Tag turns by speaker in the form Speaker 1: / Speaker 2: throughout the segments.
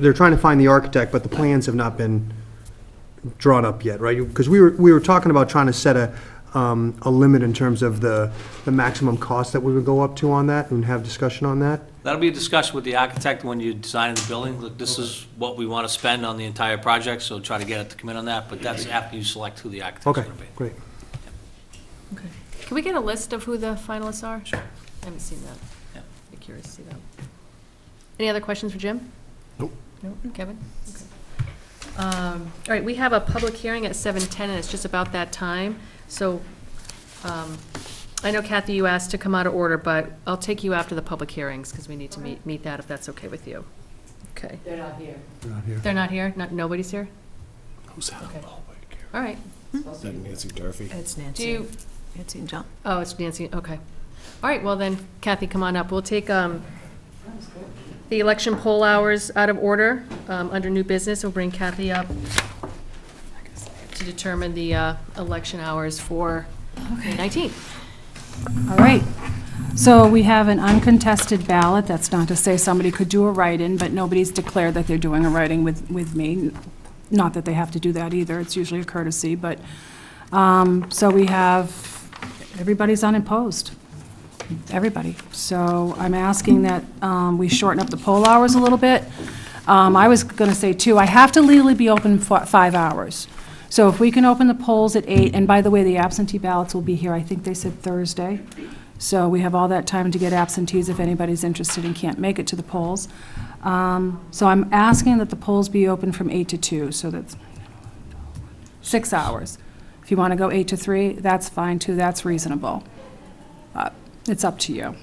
Speaker 1: they're trying to find the architect, but the plans have not been drawn up yet, right? Because we were, we were talking about trying to set a, um, a limit in terms of the, the maximum cost that we would go up to on that and have discussion on that.
Speaker 2: That'll be a discussion with the architect when you're designing the building. Look, this is what we want to spend on the entire project, so try to get it to commit on that, but that's after you select who the architect's
Speaker 1: Okay,
Speaker 2: going to be.
Speaker 1: great.
Speaker 3: Can we get a list of who the finalists are? Sure. I haven't seen that.
Speaker 2: Yeah.
Speaker 3: Be curious to see that. Any other questions for Jim? Nope. Nope, Kevin? Okay. Um, All right, we have a public hearing at 7:10, and it's just about that time, so um, I know Kathy, you asked to come out of order, but I'll take you after the public hearings, because we need to meet, meet that, if that's okay with you. Okay.
Speaker 4: They're not here.
Speaker 3: They're not here? Not, nobody's here? Okay. All right.
Speaker 4: Supposed to be.
Speaker 5: Nancy Durfee.
Speaker 6: It's
Speaker 3: Do
Speaker 6: Nancy,
Speaker 3: you,
Speaker 6: Nancy and John.
Speaker 3: oh, it's Nancy, okay. All right, well then, Kathy, come on up. We'll take, um,
Speaker 4: That was good.
Speaker 3: the election poll hours out of order, um, under new business, we'll bring Kathy up to determine the, uh, election hours for May nineteenth.
Speaker 7: All right. So we have an uncontested ballot. That's not to say somebody could do a write-in, but nobody's declared that they're doing a write-in with, with me. Not that they have to do that either. It's usually a courtesy, but, um, so we have, everybody's unopposed. Everybody. So I'm asking that, um, we shorten up the poll hours a little bit. Um, I was gonna say two, I have to legally be open for five hours. So if we can open the polls at eight, and by the way, the absentee ballots will be here, I think they said Thursday. So we have all that time to get absentees if anybody's interested and can't make it to the polls. Um, so I'm asking that the polls be open from eight to two, so that's six hours. If you wanna go eight to three, that's fine too, that's reasonable. Uh, It's up to you.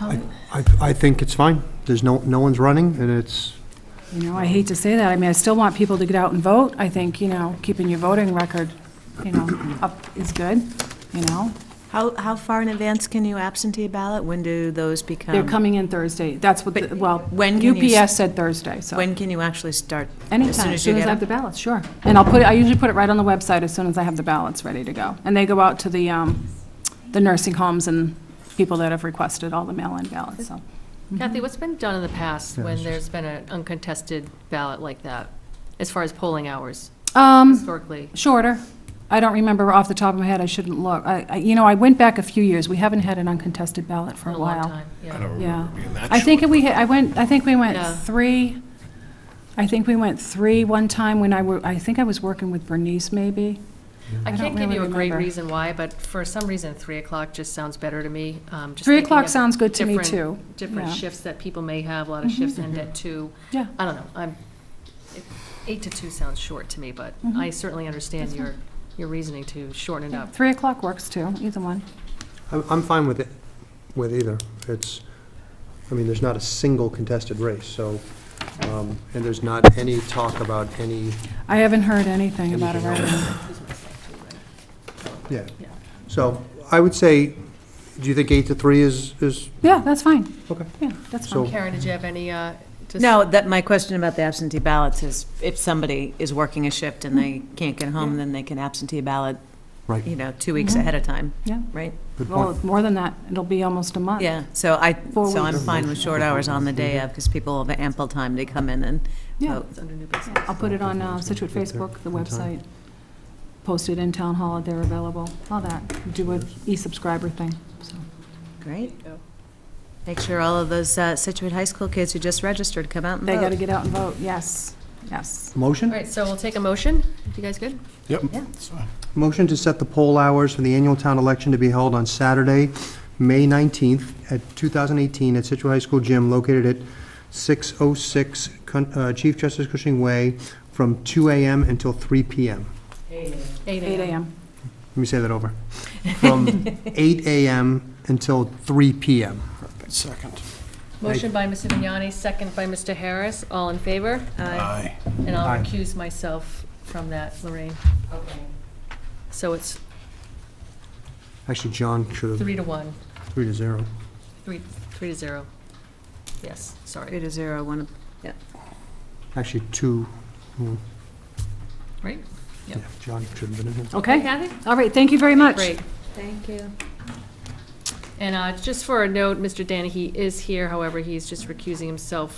Speaker 1: I, I I think it's fine. There's no, no one's running, and it's,
Speaker 7: You know, I hate to say that, I mean, I still want people to get out and vote. I think, you know, keeping your voting record, you know, up is good, you know?
Speaker 6: How, how far in advance can you absentee ballot? When do those become?
Speaker 7: They're coming in Thursday, that's what, the- well,
Speaker 6: Um, when can you
Speaker 7: UPS said Thursday, so.
Speaker 6: When can you actually start?
Speaker 7: Anytime,
Speaker 6: As soon as you
Speaker 7: I
Speaker 6: get
Speaker 7: have the
Speaker 6: them?
Speaker 7: ballots, sure. And I'll put, it. I usually put it right on the website as soon as I have the ballots ready to go. And they go out to the, um, the nursing homes and people that have requested all the mail-in ballots, so.
Speaker 3: Kathy, what's been done in the past
Speaker 1: Yeah, it's
Speaker 3: when
Speaker 1: just-
Speaker 3: there's been an uncontested ballot like that, as far as polling hours
Speaker 7: Um,
Speaker 3: historically?
Speaker 7: Shorter. I don't remember off the top of my head, I shouldn't look. I, I- you know, I went back a few years, we haven't had an uncontested ballot for
Speaker 3: In
Speaker 7: a
Speaker 3: a long
Speaker 7: while.
Speaker 3: time, yeah.
Speaker 7: Yeah.
Speaker 5: being that
Speaker 7: I think we, had- I went, I think we went
Speaker 3: Yeah.
Speaker 7: three, I think we went three one time when I were, I think I was working with Bernice, maybe.
Speaker 3: I
Speaker 7: I
Speaker 3: can't give
Speaker 7: don't
Speaker 3: you a
Speaker 7: really
Speaker 3: great
Speaker 7: remember.
Speaker 3: reason why, but for some reason, 3 o'clock just sounds better to me. um, just
Speaker 7: Three
Speaker 3: thinking
Speaker 7: o'clock
Speaker 3: of
Speaker 7: sounds good to me,
Speaker 3: different-
Speaker 7: too.
Speaker 3: Different
Speaker 7: Yeah. Mm-hmm.
Speaker 3: shifts that people may have, a lot of shifts end at 2.
Speaker 7: Yeah.
Speaker 3: I don't know, I'm, it- 8 to 2 sounds short to me, but
Speaker 7: Mhm.
Speaker 3: I certainly understand your, your reasoning to shorten it up.
Speaker 7: Three o'clock works too, either one.
Speaker 1: I'm, I'm fine with it, with either. It's, I mean, there's not a single contested race, so, um, and there's not any talk about any,
Speaker 7: I haven't heard anything about it.
Speaker 1: Anything else?
Speaker 7: write-in.
Speaker 1: yeah.
Speaker 3: Yeah.
Speaker 1: So I would say, do you think eight to three is, is,
Speaker 7: Yeah, that's fine.
Speaker 1: okay?
Speaker 7: Yeah, that's
Speaker 1: So-
Speaker 7: fine.
Speaker 3: Karen, did you have any, uh? just-
Speaker 6: No, that, my question about the absentee ballots is if somebody is working a shift and they can't get home, then they can absentee ballot,
Speaker 1: Right.
Speaker 6: you know, two weeks
Speaker 7: Mhm.
Speaker 6: ahead of time,
Speaker 7: Yeah.
Speaker 6: right?
Speaker 1: Good
Speaker 7: Well,
Speaker 1: point.
Speaker 7: it's more than that, it'll be almost a month.
Speaker 6: Yeah, so I,
Speaker 7: Four
Speaker 6: so I'm
Speaker 7: weeks.
Speaker 6: fine with short hours on the day of because people have ample time to come in and
Speaker 7: Yeah.
Speaker 6: vote.
Speaker 3: It's under new business.
Speaker 7: I'll put it on uh, Situate Facebook, the website, post it in Town Hall, they're available, all that, do an e-subscriber thing, so.
Speaker 6: Great.
Speaker 3: go.
Speaker 6: Make sure all of those uh, Situate High School kids who just registered come out and
Speaker 7: They
Speaker 6: vote.
Speaker 7: gotta get out and vote, yes, yes.
Speaker 3: All
Speaker 1: Motion?
Speaker 3: right, so we'll take a motion. You guys good?
Speaker 5: Yep.
Speaker 6: Yeah.
Speaker 5: It's fine.
Speaker 1: Motion to set the poll hours for the annual town election to be held on Saturday, May 19th, at 2018, at Situate High School Gym located at 606 Con- uh, Chief Justice Cushing Way, from 2 AM until 3 PM.
Speaker 7: Eight AM.
Speaker 1: Let me say that over. From 8 AM until 3 PM.
Speaker 5: Second.
Speaker 3: Motion by Mr. Vignani, second by Mr. Harris. All in favor?
Speaker 5: Aye.
Speaker 3: And I'll
Speaker 1: Aye.
Speaker 3: recuse myself from that, Lorraine.
Speaker 4: Okay.
Speaker 3: So it's
Speaker 1: Actually, John should have,
Speaker 3: three to one,
Speaker 1: three to zero.
Speaker 3: three, three to zero. Yes,
Speaker 6: Three
Speaker 3: sorry.
Speaker 6: to zero, one,
Speaker 1: Actually, two. mm,
Speaker 3: Right?
Speaker 1: Yeah,
Speaker 3: Yep.
Speaker 1: John should have been in here.
Speaker 7: Okay,
Speaker 3: Kathy?
Speaker 7: all right, thank you very much.
Speaker 3: Great.
Speaker 6: Thank you.
Speaker 3: And uh, just for a note, Mr. Danahy is here, however, he's just recusing himself